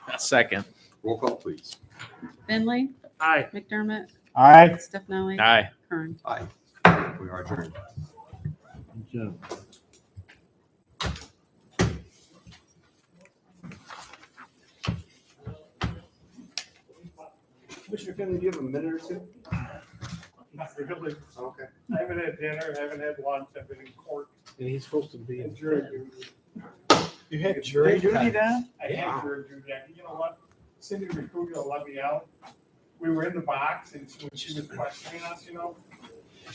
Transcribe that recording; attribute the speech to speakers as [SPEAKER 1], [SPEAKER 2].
[SPEAKER 1] Second.
[SPEAKER 2] Roll call, please.
[SPEAKER 3] Finley,
[SPEAKER 4] Aye.
[SPEAKER 3] McDermott,
[SPEAKER 5] Aye.
[SPEAKER 3] Stefani,
[SPEAKER 1] Aye.
[SPEAKER 3] Kern.
[SPEAKER 2] Aye. We are adjourned. Commissioner Finley, do you have a minute or two?
[SPEAKER 4] Not really.
[SPEAKER 2] Okay.
[SPEAKER 4] I haven't had dinner, I haven't had lunch, I've been in court.
[SPEAKER 5] And he's supposed to be
[SPEAKER 4] in jury duty.
[SPEAKER 5] You
[SPEAKER 2] had
[SPEAKER 5] jury
[SPEAKER 4] duty
[SPEAKER 5] now?
[SPEAKER 4] I had jury duty. I- You know what? Cindy Recugia let me out. We were in the box and she she was questioning us, you know,